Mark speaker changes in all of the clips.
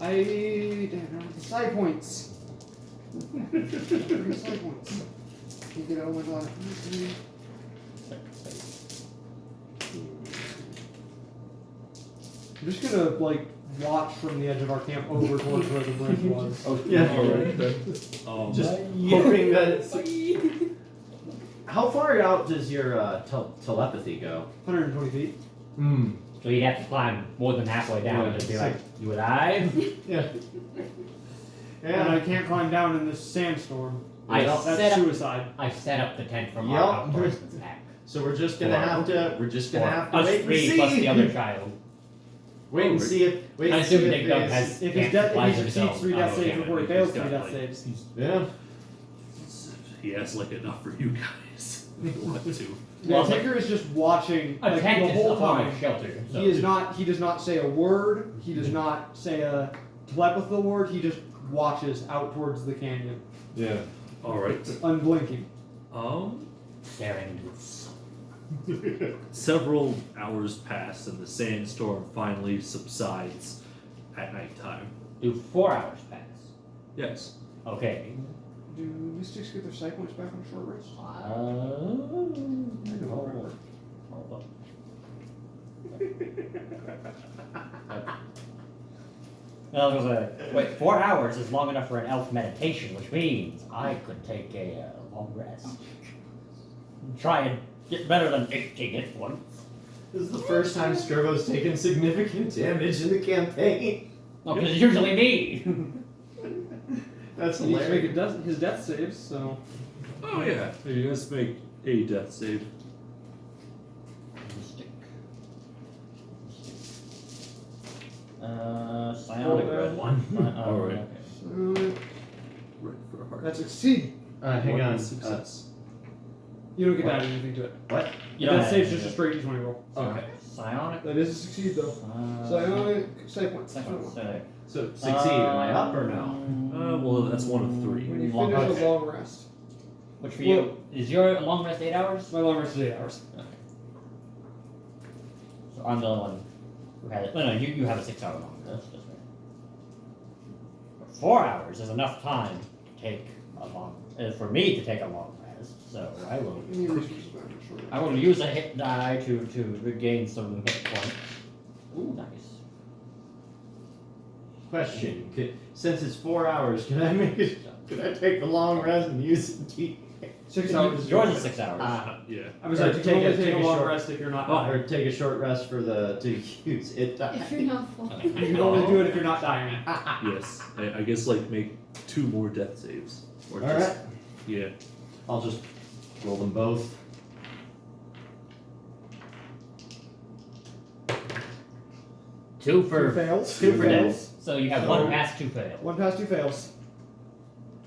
Speaker 1: I damn, I went to side points. Three side points. You get oh my god.
Speaker 2: I'm just gonna like watch from the edge of our camp over towards where the bridge was.
Speaker 3: Oh,
Speaker 4: Yeah.
Speaker 3: All right. Then.
Speaker 4: Um,
Speaker 3: Just
Speaker 4: hoping that. How far out does your uh, tel- telepathy go?
Speaker 2: 120 feet.
Speaker 3: Hmm.
Speaker 5: So you'd have to climb more than halfway down and just be like, you alive?
Speaker 2: Yeah. And I can't climb down in this sandstorm.
Speaker 5: I
Speaker 4: Well,
Speaker 5: set
Speaker 2: That's
Speaker 5: up-
Speaker 2: suicide.
Speaker 5: I set up the tent from
Speaker 4: Yup.
Speaker 5: our outdoors attack.
Speaker 4: So we're just gonna
Speaker 5: Four.
Speaker 4: have to. We're just gonna
Speaker 5: Or
Speaker 4: have to
Speaker 5: us
Speaker 4: wait and
Speaker 5: three
Speaker 4: see.
Speaker 5: plus the other child.
Speaker 4: Wait and see if. Wait
Speaker 5: I
Speaker 4: and
Speaker 5: assume
Speaker 4: see
Speaker 5: Dig
Speaker 4: if
Speaker 5: Dug
Speaker 4: it's-
Speaker 5: has-
Speaker 2: If
Speaker 5: Can't
Speaker 2: he's death,
Speaker 5: fly
Speaker 2: if he succeeds
Speaker 5: himself.
Speaker 2: three
Speaker 5: Oh,
Speaker 2: death saves
Speaker 5: okay,
Speaker 2: before he
Speaker 5: he's
Speaker 2: fails three
Speaker 5: got,
Speaker 2: death
Speaker 5: like-
Speaker 2: saves.
Speaker 4: Yeah.
Speaker 6: He has like enough for you guys. If you want to.
Speaker 2: Yeah,
Speaker 5: Well, but-
Speaker 2: Tinker is just watching
Speaker 5: A
Speaker 2: like,
Speaker 5: tent
Speaker 2: the
Speaker 5: is
Speaker 2: whole
Speaker 5: a form
Speaker 2: time.
Speaker 5: of shelter. So
Speaker 2: He is not. He does not say a word. He does not say a telepathy word. He just watches out towards the canyon,
Speaker 3: Yeah.
Speaker 6: All right.
Speaker 2: unblinking.
Speaker 6: Um,
Speaker 5: staring into
Speaker 6: several hours pass and the sandstorm finally subsides at nighttime.
Speaker 5: Do four hours pass.
Speaker 6: Yes.
Speaker 5: Okay.
Speaker 2: Do mystics get their sight points back on short rest?
Speaker 5: Uh, hold up. Well, it was a- wait, four hours is long enough for an elf meditation, which means I could take a uh, long rest. Try and get better than taking it once.
Speaker 4: This is the first time Skurbo's taken significant damage in the campaign.
Speaker 5: No, because it's usually me.
Speaker 4: That's
Speaker 2: And he's making
Speaker 4: hilarious.
Speaker 2: death, his death saves, so
Speaker 6: Oh yeah. You guys make a death save.
Speaker 5: Mystic. Uh, psionic
Speaker 2: Roll
Speaker 5: red
Speaker 2: that.
Speaker 5: one. Uh,
Speaker 6: All right.
Speaker 5: okay.
Speaker 2: uh,
Speaker 6: Right for a heart.
Speaker 2: that's a C.
Speaker 3: Uh, hang
Speaker 6: One
Speaker 3: on. Uh,
Speaker 6: Success.
Speaker 2: You don't get to
Speaker 3: What?
Speaker 2: add anything to it.
Speaker 5: You don't
Speaker 2: death
Speaker 5: have
Speaker 2: saves
Speaker 5: any
Speaker 2: just a
Speaker 5: of
Speaker 2: straight d20 roll.
Speaker 3: okay.
Speaker 5: it. uh, Psionic.
Speaker 2: That is a succeed though.
Speaker 5: Uh,
Speaker 2: So I only sight points.
Speaker 5: Second
Speaker 2: So
Speaker 5: sick.
Speaker 3: So succeed. Am I up or no?
Speaker 6: Uh, well, that's one of three.
Speaker 2: When you
Speaker 5: Long
Speaker 2: finish
Speaker 5: rest.
Speaker 2: a long rest,
Speaker 5: Which for you is your long rest eight hours?
Speaker 2: my long rest is eight hours.
Speaker 5: So I'm the only one who had it. No, no, you, you have a six hour long rest. That's right. But four hours is enough time to take a long uh, for me to take a long rest. So I will
Speaker 2: Give me resources back on short
Speaker 5: I will use a hit die to to regain some hit points. Ooh, nice.
Speaker 4: Question: could, Since it's four hours, can I make it? Could I take a long rest and use it? to-
Speaker 2: rest. Six hours. is
Speaker 5: Yours
Speaker 2: short
Speaker 5: is
Speaker 2: rest.
Speaker 5: six hours.
Speaker 4: Ah,
Speaker 6: Uh, Yeah.
Speaker 2: I'm sorry.
Speaker 4: Or
Speaker 2: You
Speaker 4: take
Speaker 2: can only
Speaker 4: a-
Speaker 2: take,
Speaker 4: take
Speaker 2: a
Speaker 4: a
Speaker 2: long
Speaker 4: short-
Speaker 2: rest if you're not.
Speaker 6: Oh.
Speaker 4: or take a short rest for the to use it. die.
Speaker 7: If you're not full.
Speaker 5: Okay.
Speaker 2: You can only do it if you're not dying.
Speaker 6: Yes. I, I guess like make two more death saves. Or
Speaker 4: All
Speaker 6: just,
Speaker 4: right.
Speaker 6: Yeah.
Speaker 4: I'll just roll them both.
Speaker 5: Two
Speaker 2: Two
Speaker 5: for
Speaker 2: fails.
Speaker 4: two for death.
Speaker 5: so you have one pass, two fail.
Speaker 2: One pass, two fails.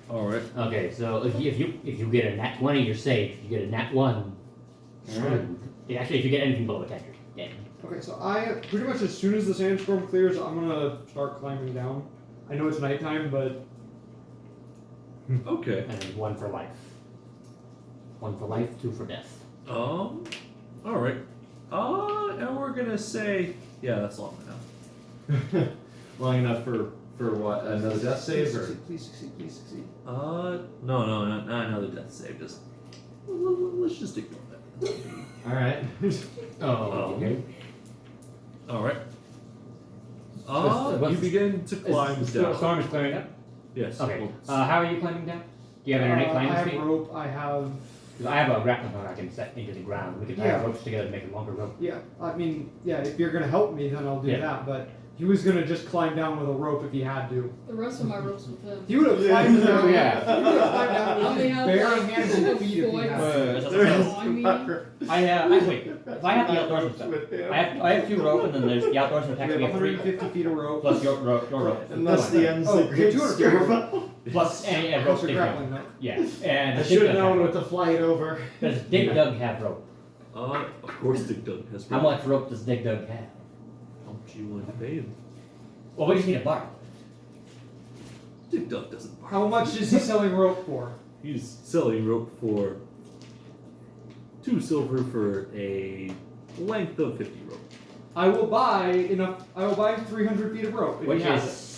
Speaker 6: All right.
Speaker 5: Okay, so if you if you, if you get a nat twenty, you're safe. If you get a nat one,
Speaker 4: Alright.
Speaker 5: yeah, actually, if you get anything below a ten, you're dead.
Speaker 2: Okay, so I pretty much as soon as the sandstorm clears, I'm gonna start climbing down. I know it's nighttime, but
Speaker 6: Okay.
Speaker 5: And then one for life. One for life, two for death.
Speaker 6: Um. All right. Uh, and we're gonna say, yeah, that's long enough.
Speaker 4: Long enough for for what? Another death
Speaker 2: please
Speaker 4: save or?
Speaker 2: succeed, please succeed, please succeed.
Speaker 6: Uh, no, no, no, not another death save. Just l- l- let's just ignore that.
Speaker 4: All right.
Speaker 5: Oh, okay.
Speaker 6: All right. Uh,
Speaker 5: what's-
Speaker 6: you begin to climb down.
Speaker 5: storm is clearing up.
Speaker 6: Yes.
Speaker 5: Okay.
Speaker 6: well,
Speaker 5: Uh, how are you climbing down? Do you have internet
Speaker 2: Uh, I
Speaker 5: climbing
Speaker 2: have
Speaker 5: speed?
Speaker 2: rope. I have
Speaker 5: Because I have a grappling hook I can set into the ground. We can tie
Speaker 2: Yeah.
Speaker 5: ropes together to make a longer rope.
Speaker 2: yeah. I mean yeah. If you're gonna help me, then I'll do
Speaker 5: Yeah.
Speaker 2: that. But he was gonna just climb down with a rope if he had to.
Speaker 7: The rest of my ropes with them.
Speaker 2: He would have climbed down.
Speaker 5: Yeah. Uh,
Speaker 2: He would have climbed down
Speaker 7: I'll
Speaker 2: with
Speaker 7: be
Speaker 2: his
Speaker 7: out
Speaker 2: bare
Speaker 7: like
Speaker 2: hands and feet if he
Speaker 7: four
Speaker 2: had. to.
Speaker 7: days. I mean-
Speaker 5: I, uh, I wait. If I have the outdoorsman stuff, I have I have two rope, and then there's the outdoorsman
Speaker 2: We
Speaker 5: attack.
Speaker 2: have
Speaker 5: We have three
Speaker 2: 150 feet of rope.
Speaker 5: plus your rope, your rope.
Speaker 4: Unless the end's
Speaker 2: Oh,
Speaker 4: a great
Speaker 2: 200.
Speaker 4: Skurbo.
Speaker 5: Plus any uh, rope
Speaker 2: Plus a
Speaker 5: stick
Speaker 2: grappling hook.
Speaker 5: Yeah, and
Speaker 4: I
Speaker 5: the
Speaker 4: should
Speaker 5: dig
Speaker 4: have known
Speaker 5: dug.
Speaker 4: with the flight over.
Speaker 5: Does Dig Dug have rope?
Speaker 6: uh, of course, Dick Dug has.
Speaker 5: How
Speaker 6: rope.
Speaker 5: much rope does Dig Dug have?
Speaker 6: How much you want to pay him?
Speaker 5: Well, we just need a bar.
Speaker 6: Dick Dug doesn't. bark.
Speaker 2: How much is he selling rope for?
Speaker 6: He's selling rope for two silver for a length of fifty rope.
Speaker 2: I will buy enough. I will buy 300 feet of rope. If
Speaker 5: Which
Speaker 2: he has
Speaker 5: is
Speaker 2: it.